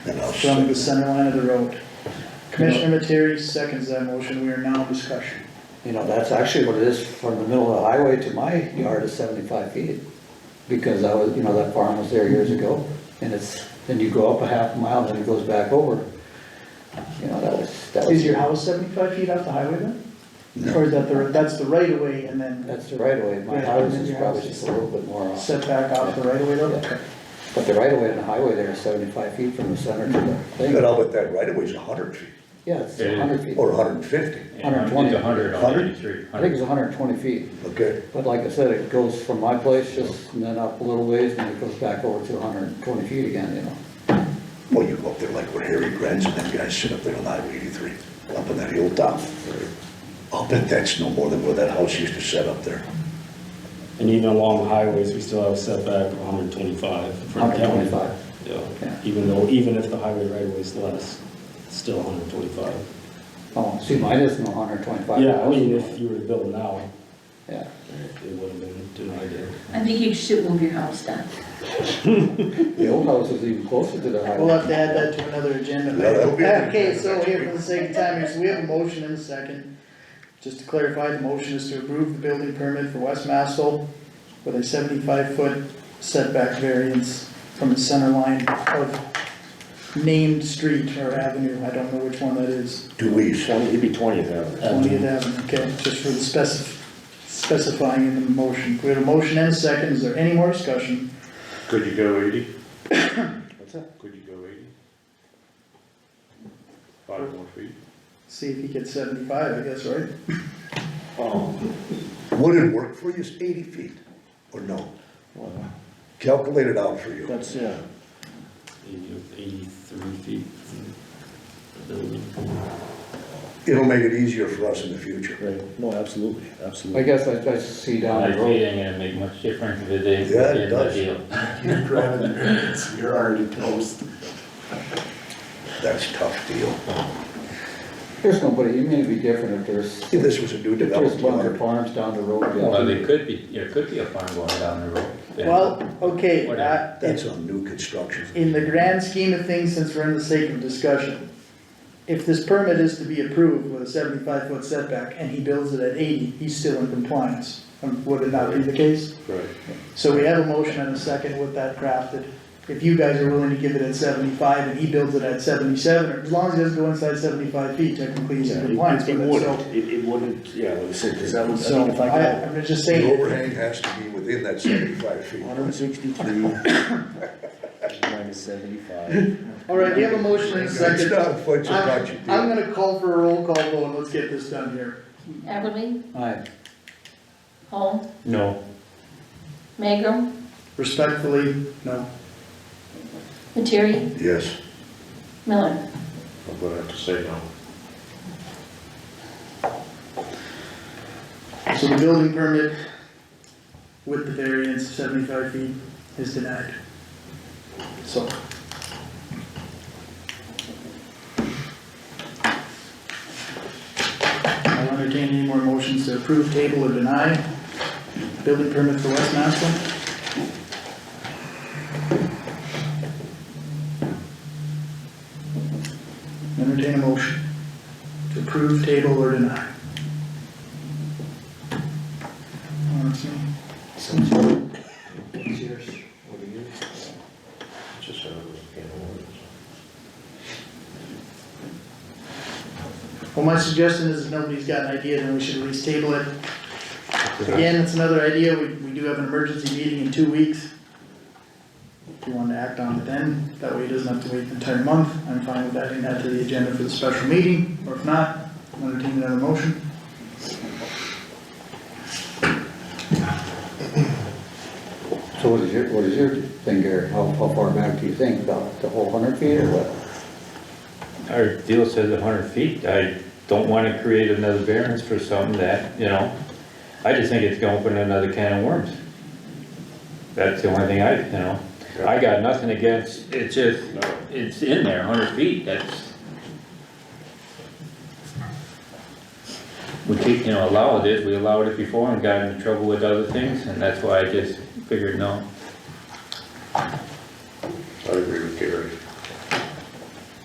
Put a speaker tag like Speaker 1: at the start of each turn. Speaker 1: from the center line of the road. Commissioner Materi seconds that motion, we are now in discussion.
Speaker 2: You know, that's actually what it is from the middle of the highway to my yard is seventy-five feet. Because I was, you know, that farm was there years ago and it's, then you go up a half mile and it goes back over. You know, that was, that was.
Speaker 1: Is your house seventy-five feet off the highway then?
Speaker 3: No.
Speaker 1: Or is that the, that's the right of way and then
Speaker 2: That's the right of way. My
Speaker 1: Yeah,
Speaker 2: house
Speaker 1: and
Speaker 2: is
Speaker 1: your
Speaker 2: probably
Speaker 1: house is-
Speaker 2: just a little bit more off.
Speaker 1: set back off the right of way though?
Speaker 2: Yeah. But the right of way on the highway there is seventy-five feet from the center to the
Speaker 3: But
Speaker 2: thing.
Speaker 3: I'll bet that right away is a hundred feet,
Speaker 2: Yeah, it's
Speaker 4: Yeah.
Speaker 2: hundred feet.
Speaker 3: or hundred and fifty,
Speaker 4: Yeah, It's a hundred on
Speaker 3: 100?
Speaker 4: eighty-three.
Speaker 2: I think it's hundred and twenty feet.
Speaker 3: okay?
Speaker 2: But like I said, it goes from my place just and then up a little ways and it goes back over to hundred and twenty feet again, you know?
Speaker 3: Well, you go up there like where Harry Grant's and them guys sit up there on Highway eighty-three, up on that hilltop. I'll bet that's no more than where that house used to set up there.
Speaker 5: And even along the highways, we still have a setback of 125. for the county.
Speaker 2: 125. Yeah.
Speaker 5: Yeah, even though, even if the highway right of way is less, it's still 125.
Speaker 2: Oh, see, mine isn't hundred and twenty-five.
Speaker 5: Yeah, I mean, if you were to build now,
Speaker 2: Yeah.
Speaker 5: it would have been denied it.
Speaker 6: I think you should move your house down.
Speaker 2: The old house is even closer to the
Speaker 1: We'll
Speaker 2: highway.
Speaker 1: have to add that to another agenda.
Speaker 3: Yeah, that'll be-
Speaker 1: Okay, so here for the sake of time, so we have a motion and a second. Just to clarify, the motion is to approve the building permit for West Massel with a seventy-five foot setback variance from the center line of named street or avenue, I don't know which one that is,
Speaker 3: Do we,
Speaker 7: Twenty, it'd be twentieth avenue.
Speaker 1: twentieth avenue, okay, just for the specif- specifying in the motion. We have a motion and a second, is there any more discussion?
Speaker 7: Could you go eighty? What's that? Could you go eighty? Five more feet?
Speaker 1: See if he gets seventy-five, I guess, right?
Speaker 3: would it work for you, is eighty feet, or no? Calculate it out for you.
Speaker 7: That's, yeah.
Speaker 5: Eighty- 83 feet from the building.
Speaker 3: It'll make it easier for us in the future.
Speaker 7: Right, no, absolutely,
Speaker 2: I
Speaker 7: absolutely.
Speaker 2: guess I, I see down
Speaker 4: Like,
Speaker 2: the
Speaker 4: it
Speaker 2: road.
Speaker 4: ain't gonna make much difference if it is
Speaker 3: Yeah, it
Speaker 4: within the
Speaker 3: does.
Speaker 4: deal.
Speaker 8: You're grabbing your hands, you're already toast.
Speaker 3: That's a tough deal.
Speaker 2: There's nobody, it may be different if there's,
Speaker 3: If this was a new
Speaker 2: if there's
Speaker 3: development.
Speaker 2: bunch of farms down the road. yeah.
Speaker 4: Well, there could be, there could be a farm going down the road. then.
Speaker 1: Well, okay,
Speaker 4: Whatever.
Speaker 1: uh,
Speaker 3: That's on new construction.
Speaker 1: in the grand scheme of things, since we're in the sake of discussion, if this permit is to be approved with a seventy-five foot setback and he builds it at eighty, he's still in compliance. Um, Would it not be the case?
Speaker 7: Right.
Speaker 1: So we have a motion and a second with that crafted. If you guys are willing to give it at seventy-five and he builds it at seventy-seven, or as long as it doesn't go inside seventy-five feet, technically he's in
Speaker 7: Yeah, it-
Speaker 1: compliance
Speaker 7: It
Speaker 1: with it, so.
Speaker 7: wouldn't, it, it wouldn't, yeah, like I said, because that was.
Speaker 1: So I, I'm just
Speaker 3: The
Speaker 1: saying,
Speaker 3: overhang has to be within that seventy-five feet.
Speaker 7: Hundred and sixty-three. Minus seventy-five.
Speaker 1: all right, we have a motion and a
Speaker 3: It's
Speaker 1: second.
Speaker 3: not quite so much a
Speaker 1: I'm,
Speaker 3: deal.
Speaker 1: I'm gonna call for a roll call vote, and let's get this done here.
Speaker 6: Everly,
Speaker 2: Aye.
Speaker 6: Holm,
Speaker 5: No.
Speaker 6: Magrum,
Speaker 1: Respectfully, no.
Speaker 6: Materi,
Speaker 3: Yes,
Speaker 6: Miller.
Speaker 7: I'm gonna have to say no.
Speaker 1: So the building permit with the variance of seventy-five feet is denied. So. I'll entertain any more motions to approve, table, or deny building permit for West Maslin. Entertain a motion to approve, table, or deny.
Speaker 2: Cheers.
Speaker 7: Just, uh, you know,
Speaker 1: Well, my suggestion is if nobody's got an idea, then we should at least table it. Again, it's another idea, we, we do have an emergency meeting in two weeks. If you wanted to act on it then, that way it doesn't have to wait an entire month, I'm fine with adding that to the agenda for the special meeting, or if not, I'll entertain another motion.
Speaker 2: So what is your, what is your thing, Gary? How, how far back do you think? About the whole hundred feet or what?
Speaker 4: Our deal says hundred feet, I don't wanna create another variance for something that, you know, I just think it's gonna open another can of worms. That's the only thing I, you know, I got nothing against, it's just, it's in there, hundred feet, that's. We keep, you know, allow this, we allowed it before and got into trouble with other things, and that's why I just figured, no,